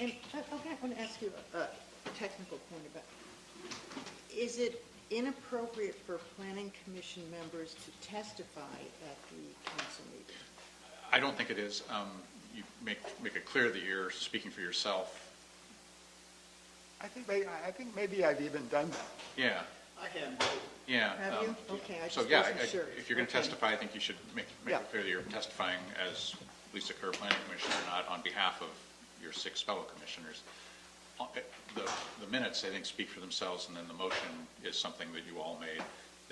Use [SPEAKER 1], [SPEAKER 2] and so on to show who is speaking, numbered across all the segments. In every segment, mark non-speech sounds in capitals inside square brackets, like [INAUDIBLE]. [SPEAKER 1] And I, I want to ask you a a technical point about, is it inappropriate for planning commission members to testify at the council meeting?
[SPEAKER 2] I don't think it is. Um, You make, make it clear that you're speaking for yourself.
[SPEAKER 3] I think, may- I I think maybe I've even done that.
[SPEAKER 2] Yeah,
[SPEAKER 4] I can,
[SPEAKER 2] yeah.
[SPEAKER 1] Have you?
[SPEAKER 2] um,
[SPEAKER 1] Okay, I
[SPEAKER 2] So,
[SPEAKER 1] just
[SPEAKER 2] yeah,
[SPEAKER 1] wasn't
[SPEAKER 2] I- I-
[SPEAKER 1] sure.
[SPEAKER 2] if you're going to
[SPEAKER 1] Okay.
[SPEAKER 2] testify, I think you should make, make
[SPEAKER 3] Yeah.
[SPEAKER 2] it clear that you're testifying as Lisa Kerr, planning commissioner, not on behalf of your six fellow commissioners. Uh, The, the minutes, I think, speak for themselves, and then the motion is something that you all made.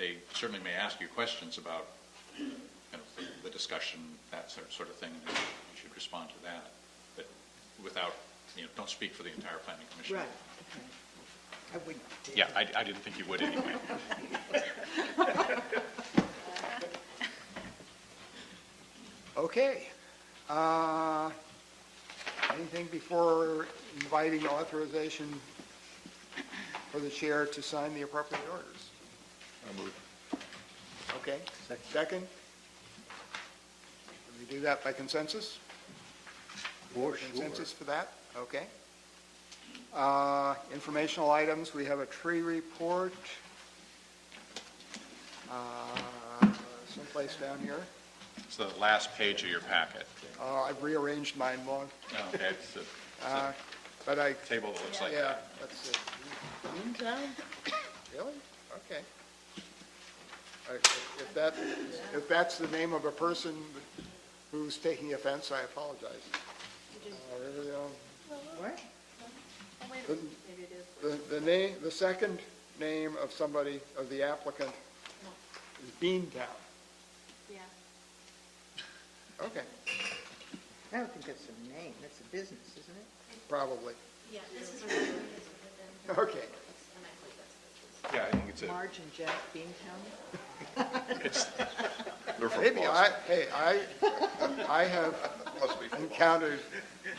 [SPEAKER 2] They certainly may ask you questions about, kind of, the- the discussion, that sort sort of thing, and you should respond to that, but without, you know, don't speak for the entire planning commission.
[SPEAKER 1] Right, okay. I wouldn't. dare.
[SPEAKER 2] Yeah, I, I didn't think you would anyway.
[SPEAKER 3] Okay. Uh, Anything before inviting authorization for the chair to sign the appropriate orders? Okay, second? Can we do that by consensus?
[SPEAKER 4] for
[SPEAKER 3] Consensus for that? Okay. Uh, Informational items, we have a tree report uh, someplace down here.
[SPEAKER 2] It's the last page of your packet.
[SPEAKER 3] Uh, I've rearranged mine long,
[SPEAKER 2] Okay, it's the
[SPEAKER 3] uh, but I,
[SPEAKER 2] table that looks like
[SPEAKER 3] yeah,
[SPEAKER 2] that.
[SPEAKER 3] let's see. Town? Really? Okay. Uh, if- If that, if that's the name of a person who's taking offense, I apologize. Uh, really, um,
[SPEAKER 1] What?
[SPEAKER 3] The, the name, the second name of somebody, of the applicant is Beantown.
[SPEAKER 5] Yeah.
[SPEAKER 3] Okay,
[SPEAKER 1] I don't think that's a name, that's a business, isn't it?
[SPEAKER 3] probably.
[SPEAKER 5] Yeah, this
[SPEAKER 3] [LAUGHS]
[SPEAKER 5] is really good, but then,
[SPEAKER 3] Okay.
[SPEAKER 5] and I believe that's the business.
[SPEAKER 2] Yeah, I think it's a,
[SPEAKER 1] Marge and Jack Beantown?
[SPEAKER 2] it's,
[SPEAKER 6] They're from
[SPEAKER 3] Maybe I,
[SPEAKER 6] Boston.
[SPEAKER 3] hey, I, I have
[SPEAKER 6] Must be from Boston.
[SPEAKER 3] encountered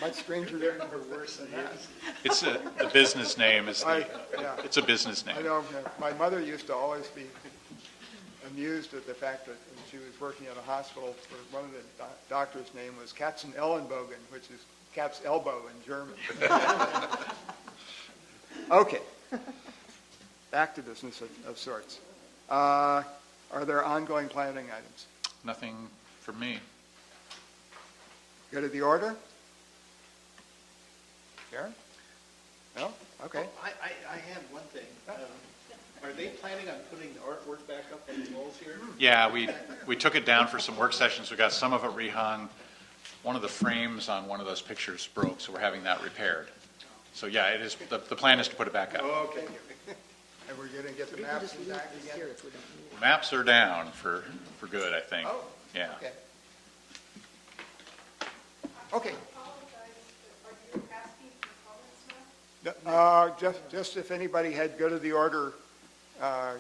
[SPEAKER 3] much stranger names. worse than that.
[SPEAKER 2] it's a, the business name is,
[SPEAKER 3] I,
[SPEAKER 2] the-
[SPEAKER 3] yeah,
[SPEAKER 2] it's a business
[SPEAKER 3] I
[SPEAKER 2] name.
[SPEAKER 3] know, uh, my mother used to always be amused at the fact that when she was working at a hospital, for- one of the doc- doctor's name was Katzen Ellenbogen, which is cat's elbow in German. [LAUGHS] Okay. Back to business of- of sorts. Uh, Are there ongoing planning items?
[SPEAKER 2] Nothing for me.
[SPEAKER 3] Go to the order? Karen? No? Okay.
[SPEAKER 1] Oh.
[SPEAKER 4] I, Oh, I, I had one thing. Um, Are they planning on putting the artwork back up on the walls here?
[SPEAKER 2] Yeah, we, we took it down for some work sessions, we got some of it rehung. One of the frames on one of those pictures broke, so we're having that repaired. So, yeah, it is, the, the plan is to put it back up.
[SPEAKER 3] Okay. And we're going to get the
[SPEAKER 1] We can
[SPEAKER 3] maps
[SPEAKER 1] just leave
[SPEAKER 3] back
[SPEAKER 1] this
[SPEAKER 3] again?
[SPEAKER 1] here if we don't need it.
[SPEAKER 2] Maps are down for, for good, I think.
[SPEAKER 3] Oh,
[SPEAKER 2] Yeah.
[SPEAKER 3] Okay. Okay. Uh, just, just if anybody had go to the order, uh,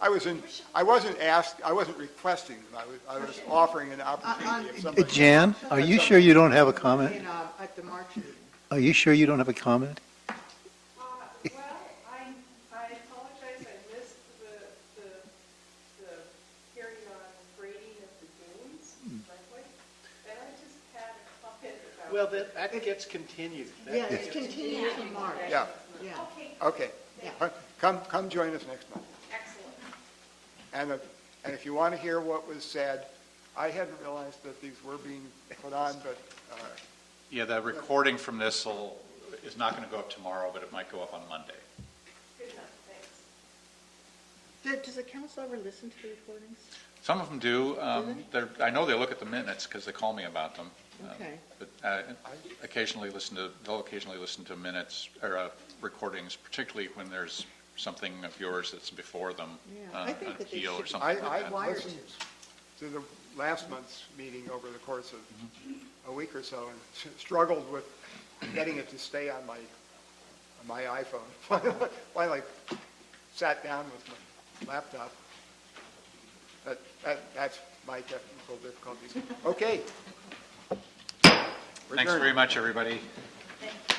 [SPEAKER 3] I was in, I wasn't asked, I wasn't requesting them, I was, I was offering an
[SPEAKER 1] Uh,
[SPEAKER 3] opportunity if somebody.
[SPEAKER 7] Jan, are you sure you don't have a comment?
[SPEAKER 1] In, uh, At the March meeting.
[SPEAKER 7] Are you sure you don't have a comment?
[SPEAKER 8] Uh, Well, I, I apologize, I missed the, the, the hearing on grading of the dunes, likely. And I just had a comment about.
[SPEAKER 4] Well, that, that gets continued. That
[SPEAKER 1] Yeah,
[SPEAKER 4] gets-
[SPEAKER 1] it's continued to March,
[SPEAKER 3] Yeah,
[SPEAKER 1] yeah.
[SPEAKER 8] Okay,
[SPEAKER 3] okay.
[SPEAKER 1] Yeah.
[SPEAKER 3] Uh, Come, come join us next month.
[SPEAKER 8] excellent.
[SPEAKER 3] And, if- and if you want to hear what was said, I hadn't realized that these were being put on, but, uh,
[SPEAKER 2] Yeah, the recording from this will, is not going to go up tomorrow, but it might go up on Monday.
[SPEAKER 8] Good enough, thanks.
[SPEAKER 1] Does does the council ever listen to the recordings?
[SPEAKER 2] Some of them do. Um, They're, I know they look at the minutes because they call me about them. Um,
[SPEAKER 1] Okay.
[SPEAKER 2] But uh, occasionally listen to, they'll occasionally listen to minutes or uh, recordings, particularly when there's something of yours that's before them.
[SPEAKER 1] Yeah, I
[SPEAKER 2] uh,
[SPEAKER 1] think
[SPEAKER 2] an
[SPEAKER 1] that they
[SPEAKER 2] appeal or
[SPEAKER 1] should-
[SPEAKER 2] something
[SPEAKER 3] I,
[SPEAKER 2] like that.
[SPEAKER 3] I
[SPEAKER 1] Wired.
[SPEAKER 3] listened to the last month's meeting over the course of a week or so and [LAUGHS] s- struggled with getting it to stay on my, on my iPhone. [LAUGHS] Finally sat down with my laptop. That, that, that's my technical difficulties. Okay.
[SPEAKER 2] Thanks
[SPEAKER 3] Return.
[SPEAKER 2] very much, everybody.
[SPEAKER 5] Thank you.